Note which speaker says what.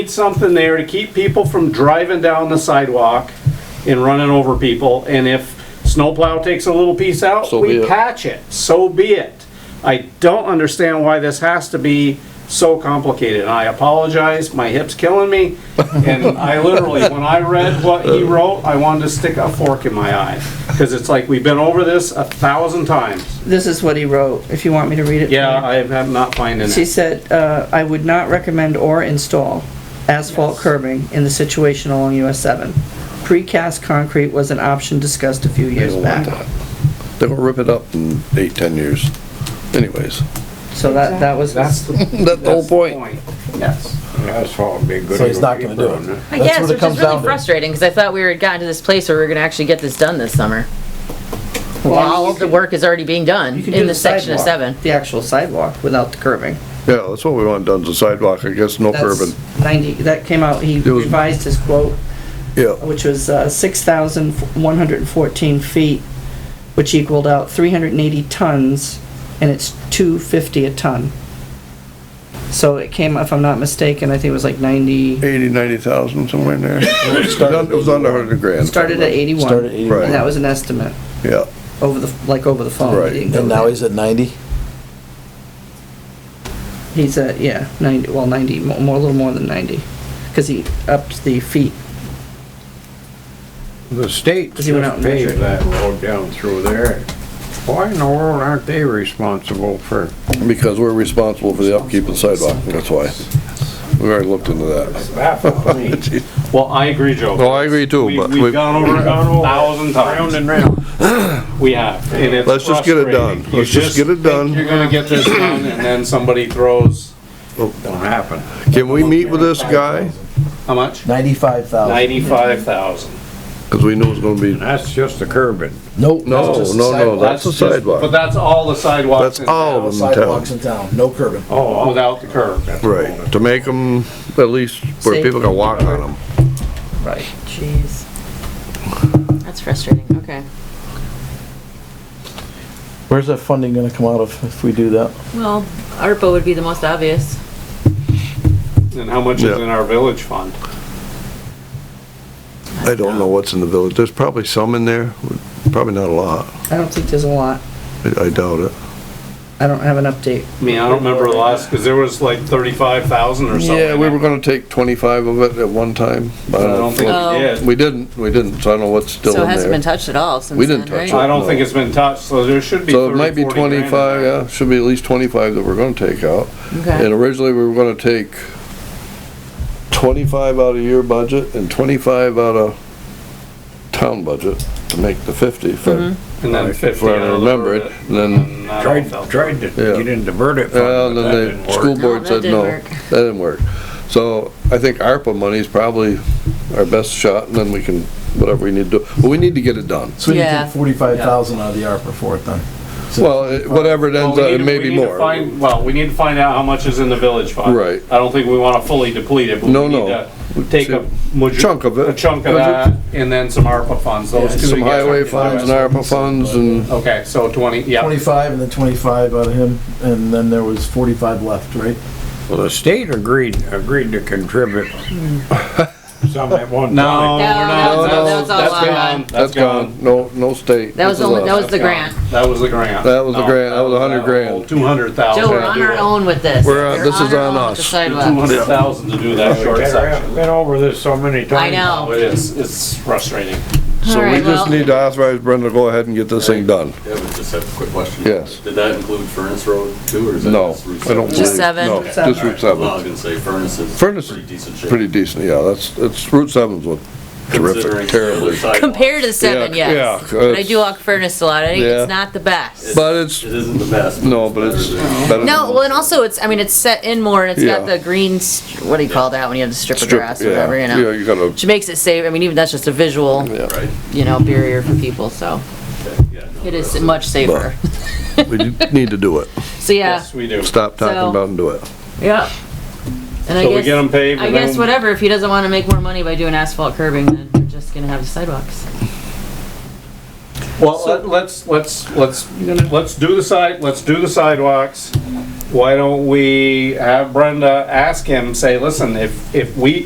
Speaker 1: need something there to keep people from driving down the sidewalk and running over people, and if snowplow takes a little piece out,
Speaker 2: So be
Speaker 1: we
Speaker 2: it.
Speaker 1: patch it, so be it. I don't understand why this has to be so complicated, and I apologize, my hip's killing me, and I literally, when I read what he wrote, I wanted to stick a fork in my eye, because it's like, we've been over this a thousand times.
Speaker 3: This is what he wrote, if you want me to read it. for
Speaker 1: Yeah,
Speaker 3: you.
Speaker 1: I am not finding
Speaker 3: She
Speaker 1: it.
Speaker 3: said, uh, "I would not recommend or install asphalt curbing in the situation along US 7. Precast concrete was an option discussed a few years back."
Speaker 2: They will rip it up in eight, 10 years anyways.
Speaker 3: So that, that was,
Speaker 1: That's the
Speaker 2: That's the whole
Speaker 1: that's the
Speaker 2: point.
Speaker 1: Yes.
Speaker 4: Asphalt would be good.
Speaker 5: So he's not gonna do it.
Speaker 6: I
Speaker 5: That's
Speaker 6: guess,
Speaker 5: what it
Speaker 6: which
Speaker 5: comes
Speaker 6: is really
Speaker 5: down to.
Speaker 6: frustrating, because I thought we were gotten to this place where we were gonna actually get this done this summer. Well, all of the work is already being done
Speaker 3: you can do
Speaker 6: in the section of
Speaker 3: sidewalk,
Speaker 6: seven.
Speaker 3: The actual sidewalk without the curbing.
Speaker 2: Yeah, that's what we want done, the sidewalk, I guess, no
Speaker 3: That's
Speaker 2: curbing.
Speaker 3: 90, that came out, he
Speaker 2: was-
Speaker 3: revised his quote,
Speaker 2: Yeah,
Speaker 3: which was uh, 6,114 feet, which equaled out 380 tons, and it's 250 a ton. So it came, if I'm not mistaken, I think it was like 90,
Speaker 2: 80, 90,000, somewhere in there. It was done- it was under 100 grand.
Speaker 3: started at 81.
Speaker 5: Started at 81.
Speaker 3: And that was an estimate,
Speaker 2: Yeah,
Speaker 3: over the, like over the phone.
Speaker 2: Right.
Speaker 3: He didn't go
Speaker 5: And now
Speaker 3: there.
Speaker 5: he's at 90?
Speaker 3: He's at, yeah, 90, well, 90, mo- more, a little more than 90, because he upped the feet.
Speaker 4: The state
Speaker 3: Does he went out
Speaker 4: just
Speaker 3: and
Speaker 4: paved
Speaker 3: measured?
Speaker 4: that road down through there. Why in the world aren't they responsible for,
Speaker 2: because we're responsible for the upkeep of the sidewalk, that's why. We already looked into that.
Speaker 4: baffles me.
Speaker 1: Well, I agree, Joe.
Speaker 2: No, I agree too,
Speaker 1: We-
Speaker 2: but
Speaker 1: We've
Speaker 2: we,
Speaker 1: gone over it a thousand
Speaker 4: Round
Speaker 1: times.
Speaker 4: and round.
Speaker 1: We have, and it's
Speaker 2: Let's just get it
Speaker 1: frustrating.
Speaker 2: done.
Speaker 1: You
Speaker 2: Let's just get it
Speaker 1: think
Speaker 2: done.
Speaker 1: You're gonna get this done, and then somebody throws,
Speaker 4: Don't happen.
Speaker 2: can we meet with this guy?
Speaker 1: how much?
Speaker 5: 95,000.
Speaker 1: Ninety-five thousand.
Speaker 2: Because we knew it was gonna be,
Speaker 4: And that's just the curbing.
Speaker 5: Nope.
Speaker 2: no,
Speaker 5: that's just
Speaker 2: no, no,
Speaker 5: sidewalk.
Speaker 2: that's the
Speaker 1: But
Speaker 2: sidewalk.
Speaker 1: that's all the sidewalks.
Speaker 2: That's
Speaker 1: in
Speaker 2: all
Speaker 1: town
Speaker 2: of them in town.
Speaker 5: Sidewalks in town, no curbing.
Speaker 4: Oh,
Speaker 1: Without the curb.
Speaker 2: Right, to make them at least where
Speaker 3: Safe.
Speaker 2: people can walk on them.
Speaker 3: Right.
Speaker 6: Jeez. That's frustrating, okay.
Speaker 5: Where's that funding gonna come out of if we do that?
Speaker 6: Well, ARPA would be the most obvious.
Speaker 1: And how much is
Speaker 2: Yeah.
Speaker 1: in our village fund?
Speaker 2: I don't know what's in the village, there's probably some in there, probably not a lot,
Speaker 3: I don't think there's a lot.
Speaker 2: I I doubt it.
Speaker 3: I don't have an update.
Speaker 1: I mean, I don't remember the last, cause there was like thirty-five thousand or something.
Speaker 2: Yeah, we were gonna take twenty-five of it at one time. I
Speaker 1: But I don't
Speaker 2: don't
Speaker 1: think
Speaker 2: know.
Speaker 6: Oh.
Speaker 1: we did.
Speaker 2: We didn't, we didn't, so I don't know what's still
Speaker 6: So it
Speaker 2: in
Speaker 6: hasn't been
Speaker 2: there.
Speaker 6: touched at all since
Speaker 2: We didn't
Speaker 6: then,
Speaker 2: touch
Speaker 6: right?
Speaker 2: it.
Speaker 1: I don't think it's been touched, so there should be
Speaker 2: So it might
Speaker 1: thirty,
Speaker 2: be
Speaker 1: forty grand. in
Speaker 2: twenty-five,
Speaker 1: there.
Speaker 2: yeah, should be at least twenty-five that we're gonna take out. And
Speaker 6: Okay,
Speaker 2: originally, we were gonna take twenty-five out of your budget and twenty-five out of town budget to make the fifty, if
Speaker 6: Mm-hmm.
Speaker 2: I-
Speaker 1: And then
Speaker 2: if
Speaker 1: fifty.
Speaker 2: I
Speaker 1: out of the
Speaker 2: remember it,
Speaker 1: curb.
Speaker 2: and then,
Speaker 1: And I don't
Speaker 4: Tried,
Speaker 1: feel-
Speaker 4: tried to
Speaker 2: Yeah.
Speaker 4: get in divert it,
Speaker 2: yeah,
Speaker 4: but
Speaker 2: and
Speaker 4: that
Speaker 2: then
Speaker 4: didn't
Speaker 2: the
Speaker 4: work.
Speaker 2: school board
Speaker 6: that
Speaker 2: said
Speaker 6: didn't
Speaker 2: no,
Speaker 6: work.
Speaker 2: that didn't work. So I think ARPA money's probably our best shot, and then we can, whatever we need to do, but we need to get it done.
Speaker 5: So you
Speaker 6: Yeah.
Speaker 5: take 45,000 out of the ARPA for it then? So-
Speaker 2: Well, it- whatever it ends up,
Speaker 1: Well, we
Speaker 2: it
Speaker 1: need-
Speaker 2: may
Speaker 1: we
Speaker 2: be
Speaker 1: need to
Speaker 2: uh, more.
Speaker 1: find- Well, we need to find out how much is in the village fund.
Speaker 2: Right.
Speaker 1: I don't think we wanna fully deplete it, but
Speaker 2: No,
Speaker 1: we need
Speaker 2: no.
Speaker 1: to take a. mojo-
Speaker 2: Chunk of it.
Speaker 1: A chunk of that, and then some ARPA funds, those two.
Speaker 2: Some
Speaker 1: together.
Speaker 2: highway funds and ARPA funds and,
Speaker 1: Okay, so twenty, yeah,
Speaker 5: 25 and then 25 out of him, and then there was 45 left, right?
Speaker 4: Well, the state agreed, agreed to contribute some at one
Speaker 1: no. we're
Speaker 6: No,
Speaker 4: time.
Speaker 1: not-
Speaker 6: that was- that was all
Speaker 1: that's
Speaker 6: on-
Speaker 1: gone,
Speaker 2: that's gone, no, no state.
Speaker 6: that was
Speaker 2: This is
Speaker 6: only,
Speaker 2: us.
Speaker 6: that was the
Speaker 1: That's
Speaker 6: grant.
Speaker 1: gone. That was the grant.
Speaker 2: That was the grant. That was 100 grand.
Speaker 1: Two hundred thousand.
Speaker 6: Joe, we're on our own with this.
Speaker 2: We're on-
Speaker 6: We're
Speaker 2: this is
Speaker 6: our
Speaker 2: on
Speaker 6: own with the
Speaker 2: us.
Speaker 1: Two
Speaker 6: sidewalks.
Speaker 1: hundred thousand to do that short section.
Speaker 4: Been over this so many times.
Speaker 6: I know.
Speaker 1: Oh, it is, it's frustrating.
Speaker 2: So we
Speaker 6: Alright,
Speaker 2: just
Speaker 6: well-
Speaker 2: need to authorize Brenda to go ahead and get this thing done.
Speaker 7: Yeah, but just have a quick question.
Speaker 2: Yes.
Speaker 7: Did that include Furnace Road too, or is that?
Speaker 2: No,
Speaker 7: just Route
Speaker 2: I don't believe.
Speaker 7: seven?
Speaker 6: Just seven?
Speaker 2: No, just Route
Speaker 7: Well, I
Speaker 2: 7.
Speaker 7: was gonna say Furnace is.
Speaker 2: Furnace is
Speaker 7: Pretty decent shape.
Speaker 2: Pretty decent, yeah, that's, it's, Route 7's what
Speaker 7: considering
Speaker 2: terrific,
Speaker 7: the other
Speaker 2: terribly.
Speaker 7: sidewalks.
Speaker 6: Compared to the seven,
Speaker 2: Yeah,
Speaker 6: yes.
Speaker 2: yeah,
Speaker 6: But I
Speaker 2: it's-
Speaker 6: do walk furnace a lot, I think
Speaker 2: Yeah.
Speaker 6: it's not the best.
Speaker 2: But it's,
Speaker 7: It isn't the best.
Speaker 2: no, but it's
Speaker 7: better than-
Speaker 2: better
Speaker 6: No,
Speaker 2: than-
Speaker 6: well, and also it's, I mean, it's set in more and it's got
Speaker 2: Yeah.
Speaker 6: the green, st- what do you call that when you have the strip of
Speaker 2: Strip,
Speaker 6: grass
Speaker 2: yeah.
Speaker 6: or whatever, you
Speaker 2: Yeah,
Speaker 6: know?
Speaker 2: you gotta,
Speaker 6: Which makes it safe, I mean, even that's just a visual,
Speaker 2: yeah.
Speaker 7: Right.
Speaker 6: you know, barrier for people, so
Speaker 7: okay, yeah, no,
Speaker 6: it
Speaker 7: that's-
Speaker 6: is much safer.
Speaker 2: We need to do it.
Speaker 6: So, yeah,
Speaker 1: Yes, we do.
Speaker 2: Stop
Speaker 6: So-
Speaker 2: talking about it and do it.
Speaker 6: yeah. And I
Speaker 1: So we get them
Speaker 6: guess,
Speaker 1: paved
Speaker 6: I
Speaker 1: and then.
Speaker 6: guess whatever, if he doesn't wanna make more money by doing asphalt curbing, then we're just gonna have the sidewalks.
Speaker 1: Well, let- let's, let's, let's, let's do the side, let's do the sidewalks. Why don't we have Brenda ask him, say, listen, if, if we